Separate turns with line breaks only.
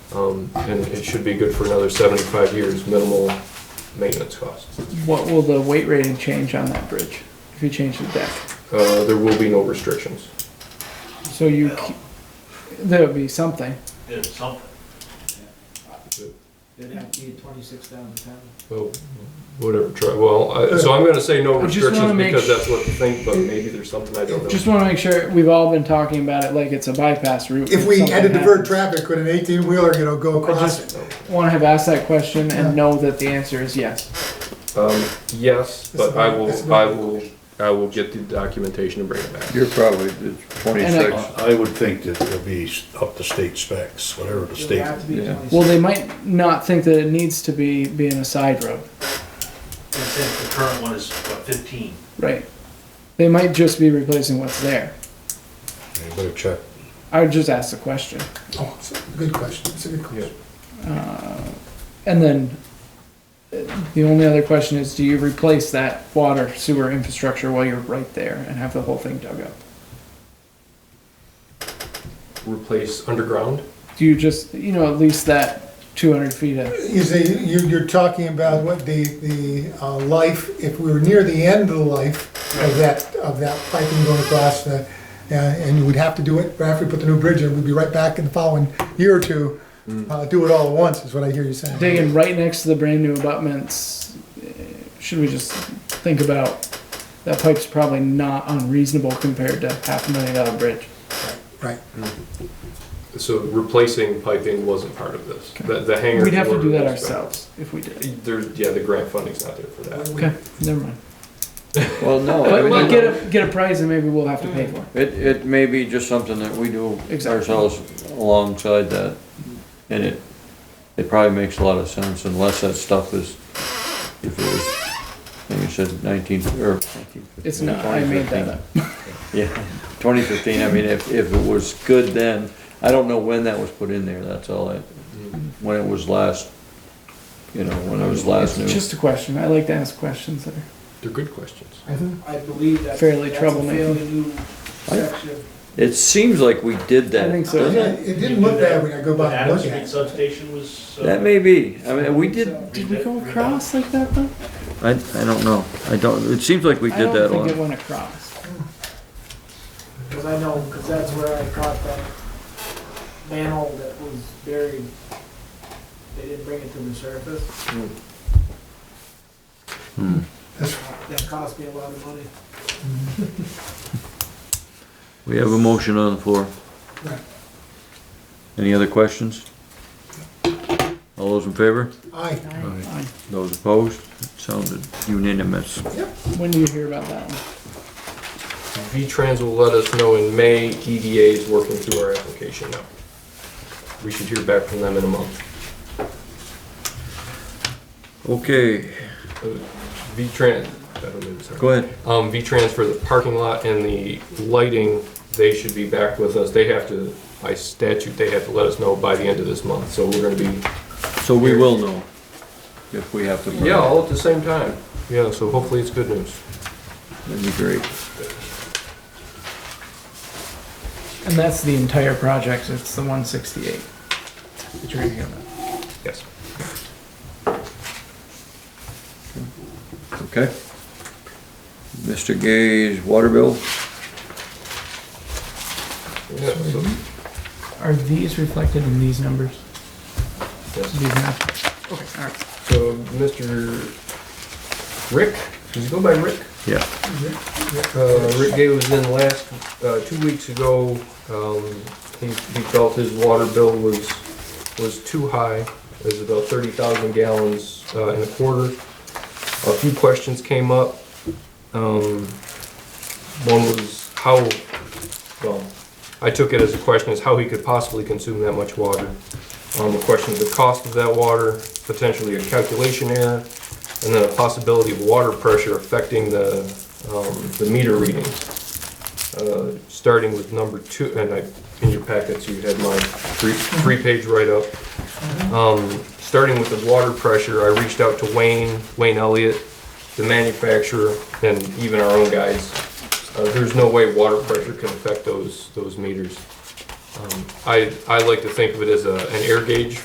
Um, and it should be good for another seventy-five years, minimal maintenance cost.
What will the weight rating change on that bridge if you change the deck?
Uh, there will be no restrictions.
So you, ke- there'll be something.
There's something.
It'd have to be twenty-six thousand ton.
Well, whatever, try, well, I, so I'm gonna say no
I just
restrictions
wanna make
because
sh-
that's what you think, but maybe there's something I don't know.
Just want to make sure, we've all been talking about it like it's a bypass route.
If we had to divert
traffic,
traffic, could an eighteen wheeler, you know, go across it?
Want to have asked that question
Yeah.
and know that the answer is yes.
Um, yes, but I
It's
will,
not-
I will, I will get the documentation and bring it back.
You're probably the
And
twenty-six.
I would think that it'll be up to state specs, whatever the
It'd
state.
have to be
Yeah.
Well,
twenty-six.
they might not think that it needs to be being a side road,
It says the current one is, what, fifteen?
right? They might just be replacing what's there.
You better check.
I would just ask the question.
Oh, it's a Good question, it's a good question.
And then uh, the only other question is, do you replace that water sewer infrastructure while you're right there and have the whole thing dug up?
Replace underground?
Do you just, you know, at least that two hundred feet of,
You say, you, you're talking about what the, the, uh, life, if we were near the end of the life of that, of that piping going across the, uh, and you would have to do it, right after we put the new bridge in, we'd be right back in the following year or two, uh, do it all at once, is what I hear you saying.
digging right next to the brand new abutments? eh, Should we just think about, that pipe's probably not unreasonable compared to half a million dollar bridge.
Right,
So replacing piping wasn't part of this. The, the hangar.
We'd have to
floor
do that
was-
ourselves if we did.
There's, yeah, the grant funding's not there for that.
Okay, never mind.
Well, no,
But
I mean,
we'll get a, get a price and maybe we'll have to pay for it.
it, it may be just something that we do
Exactly.
ourselves alongside that. And it, it probably makes a lot of sense unless that stuff is, if it was, like you said, nineteen, or nineteen fifteen.
It's not, I made that up.
Yeah, twenty fifteen, I mean, if, if it was good then, I don't know when that was put in there, that's all I, when it was last, you know, when it was last new.
It's just a question. I like to ask questions that are
They're good questions.
I believe that's.
Fairly
that's a
troublemaking.
fairly new section.
It seems like we did
I
that.
think so.
doesn't
Yeah,
it?
it didn't look bad when I go by and
Adams
look at
Street
it.
substation was. uh,
That may be, I mean, we did,
Did we go across like that though?
I, I don't know, I don't, it seems like we
I
did
don't
that a
think it
lot.
went across.
Cause I know, cause that's where I caught that manhole that was buried. They didn't bring it to the surface.
That's-
That cost me a lot of money.
We have a motion on the floor.
Right.
Any other questions? All those in favor?
Aye.
Fine.
Those opposed? It Sounded unanimous.
When do you hear about that one?
V-Trans will let us know in May. EDA is working through our application now. We should hear back from them in a month.
Okay,
V-Trans, I don't know, sorry.
go ahead.
Um, V-Trans for the parking lot and the lighting, they should be back with us. They have to, by statute, they have to let us know by the end of this month. So we're gonna be,
So we will know if we have to. burn it.
yeah, all at the same time. Yeah, so hopefully it's good news.
That'd be great.
And that's the entire project. It's the 168. That you're gonna hear about.
Yes.
Okay. Mr. Gay's water bill?
Yeah, so,
Are these reflected in these numbers?
yes.
These maps? Okay, all right.
So, Mr. Rick, does he go by Rick?
Yeah.
Uh, Rick Gay was in last, uh, two weeks ago, um, he, he felt his water bill was, was too high. It was about thirty thousand gallons, uh, in a quarter. A few questions came up. Um, one was how, well, I took it as a question, is how he could possibly consume that much water. Um, the question of the cost of that water, potentially a calculation error, and then a possibility of water pressure affecting the, um, the meter readings. Uh, starting with number two, and I, in your packets, you had my three, three-page write-up. Um, starting with the water pressure, I reached out to Wayne, Wayne Elliott, the manufacturer, and even our own guys. Uh, there's no way water pressure can affect those, those meters. Um, I, I like to think of it as a, an air gauge